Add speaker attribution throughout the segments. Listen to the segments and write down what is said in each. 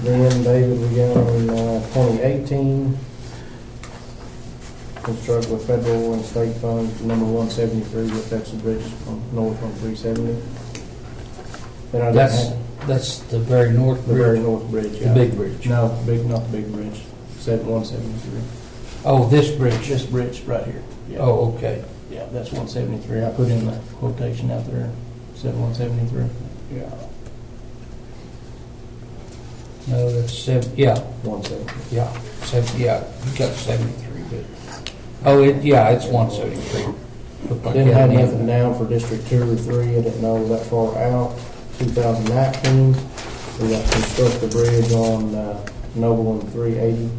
Speaker 1: Then David, we got on uh, twenty eighteen, construct with federal and state funds, number one seventy-three, with that's the bridge from north on three seventy. And I don't
Speaker 2: That's,
Speaker 1: have
Speaker 2: that's the very north
Speaker 1: the very
Speaker 2: bridge,
Speaker 1: north bridge.
Speaker 2: the
Speaker 1: yeah.
Speaker 2: big bridge.
Speaker 1: No, big, not big bridge, seven, one seventy-three.
Speaker 2: Oh, this bridge.
Speaker 1: This bridge right here. Yeah.
Speaker 2: Oh, okay.
Speaker 1: Yeah, that's one seventy-three. I put in the quotation out there, said one seventy-three.
Speaker 2: Yeah. No, that's seven, yeah,
Speaker 1: One seventy.
Speaker 2: yeah, seven, yeah, you got seventy-three, but, oh, it, yeah, it's one seventy-three.
Speaker 1: Didn't have nothing down for District Two or Three, I didn't know that far out. Two thousand nineteen, we got to construct the bridge on uh, Noble and three eighty.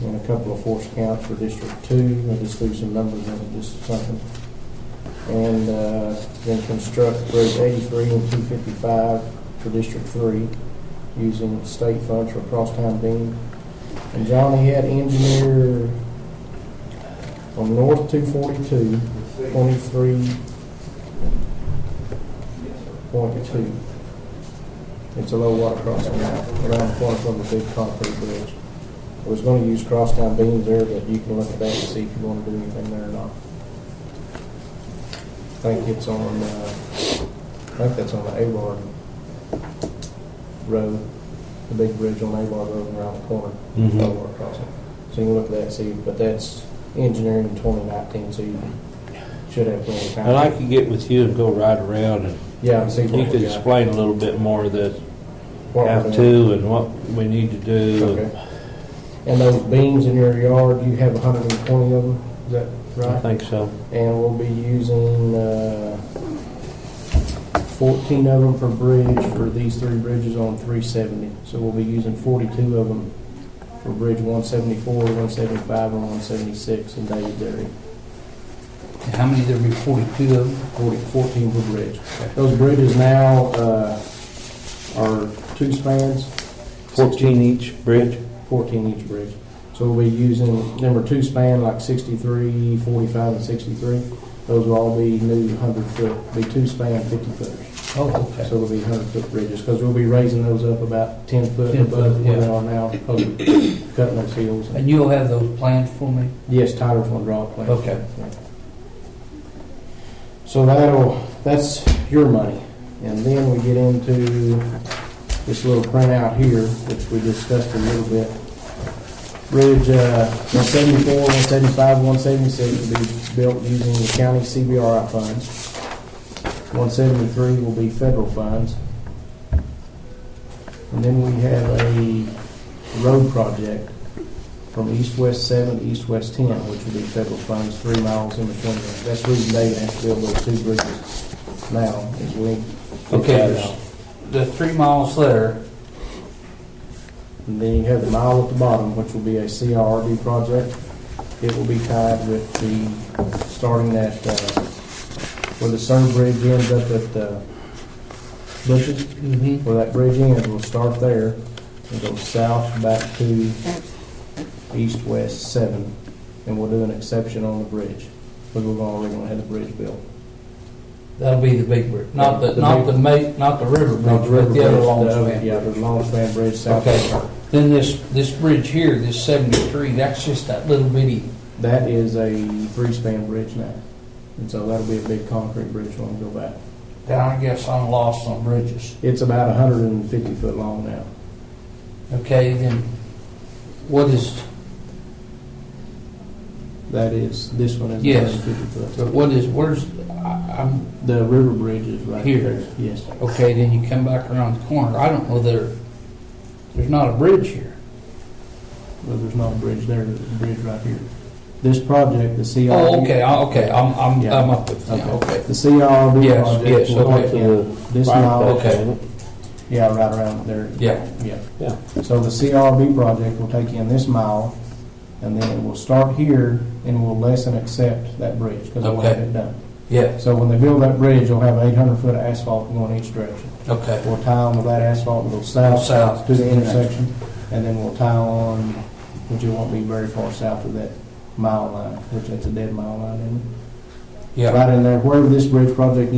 Speaker 1: And a couple of force counts for District Two, I just threw some numbers in, just something. And uh, then construct Bridge eighty-three and two fifty-five for District Three, using state funds for crosstown beam. And Johnny had engineer on North 242, 23.2. It's a low water crossing now, around the corner from the big concrete bridge. I was going to use crosstown beams there, but you can look at that and see if you want to do anything there or not. I think it's on, uh, I think that's on the Avard Road, the big bridge on Avard Road and around the corner,
Speaker 3: Mm-hmm.
Speaker 1: low water crossing. So you can look at that and see, but that's engineering in 2019, so you should have plenty of time.
Speaker 3: I'd like to get with you and go right around and
Speaker 1: Yeah, and see
Speaker 3: you
Speaker 1: what
Speaker 3: could
Speaker 1: we got.
Speaker 3: explain a little bit more of this,
Speaker 1: what we're
Speaker 3: how
Speaker 1: doing.
Speaker 3: to and what we need to do. and
Speaker 1: Okay. And those beams in your yard, you have hundred and twenty of them, is that
Speaker 3: I
Speaker 1: right?
Speaker 3: think so.
Speaker 1: And we'll be using, uh, fourteen of them per bridge for these three bridges on three seventy. So we'll be using forty-two of them for bridge one seventy-four, one seventy-five, and one seventy-six in David Dairy.
Speaker 2: How many, there'd be forty-two of them?
Speaker 1: Forty, fourteen per bridge. Those bridges now, uh, are two spans,
Speaker 3: Fourteen each bridge?
Speaker 1: 14 each bridge. So we'll be using number two span like 63, 45, and 63. Those will all be new 100 foot, be two span 50 footers.
Speaker 2: Oh, okay.
Speaker 1: So it'll be 100 foot bridges because we'll be raising those up about 10 foot
Speaker 2: 10
Speaker 1: above
Speaker 2: foot,
Speaker 1: where they
Speaker 2: yeah.
Speaker 1: are now, because we're cutting those hills.
Speaker 2: And you'll have those plans for me?
Speaker 1: Yes, Tyler's gonna draw a plan.
Speaker 2: Okay.
Speaker 1: So that'll, that's your money. And then we get into this little printout here, which we discussed a little bit. Bridge, uh, one seventy-four, one seventy-five, one seventy-six will be built using the county CBRI funds. One seventy-three will be federal funds. And then we have a road project from East West Seven to East West Ten, which would be federal funds, three miles in between. them. That's the reason David has to build those two bridges now, is we.
Speaker 2: Okay, there's the three miles there,
Speaker 1: And then you have the mile at the bottom, which will be a CRRD project. It will be tied with the, starting at, uh, where the CERN Bridge ends up at, uh, Bushes.
Speaker 2: mm-hmm,
Speaker 1: Where that bridge ends, we'll start there and go south back to east-west seven. And we'll do an exception on the bridge, because we're already gonna have the bridge built.
Speaker 2: that'll be the big bridge, not the,
Speaker 1: The
Speaker 2: not
Speaker 1: big-
Speaker 2: the ma, not the river
Speaker 1: Not
Speaker 2: bridge, but the other
Speaker 1: bridge,
Speaker 2: long
Speaker 1: the other-
Speaker 2: span.
Speaker 1: Yeah, the long span bridge south.
Speaker 2: Okay. Then this, this bridge here, this seventy-three, that's just that little bitty,
Speaker 1: That is a three-span bridge now. And so that'll be a big concrete bridge when we go back.
Speaker 2: then I guess I'm lost on bridges.
Speaker 1: It's about hundred and fifty foot long now.
Speaker 2: Okay, then what is,
Speaker 1: That is, this one is
Speaker 2: Yes.
Speaker 1: hundred and fifty foot.
Speaker 2: what is, where's, I, I'm,
Speaker 1: The river bridge is right
Speaker 2: Here.
Speaker 1: there. Yes.
Speaker 2: okay, then you come back around the corner, I don't know there, there's not a bridge here.
Speaker 1: Well, there's not a bridge there, there's a bridge right here. This project, the CRB.
Speaker 2: Oh, okay, I- okay, I'm, I'm,
Speaker 1: Yeah.
Speaker 2: I'm up with, yeah, okay.
Speaker 1: The CRB
Speaker 2: Yes,
Speaker 1: project.
Speaker 2: yes,
Speaker 1: will
Speaker 2: okay.
Speaker 1: take This
Speaker 3: Right,
Speaker 1: mile.
Speaker 2: okay.
Speaker 1: Yeah, right around there.
Speaker 2: Yeah.
Speaker 1: Yeah.
Speaker 3: Yeah.
Speaker 1: So the CRB project will take in this mile, and then it will start here, and will less than accept that bridge, because it will have
Speaker 2: Okay.
Speaker 1: it done.
Speaker 2: Yes,
Speaker 1: So when they build that bridge, you'll have eight hundred foot of asphalt going each direction.
Speaker 2: okay.
Speaker 1: We'll tie on with that asphalt, we'll go south.
Speaker 2: South.
Speaker 1: To the intersection, and then we'll tie on, which it won't be very far south of that mile line, which that's a dead mile line, isn't it?
Speaker 2: Yeah.
Speaker 1: Right in there, wherever this bridge project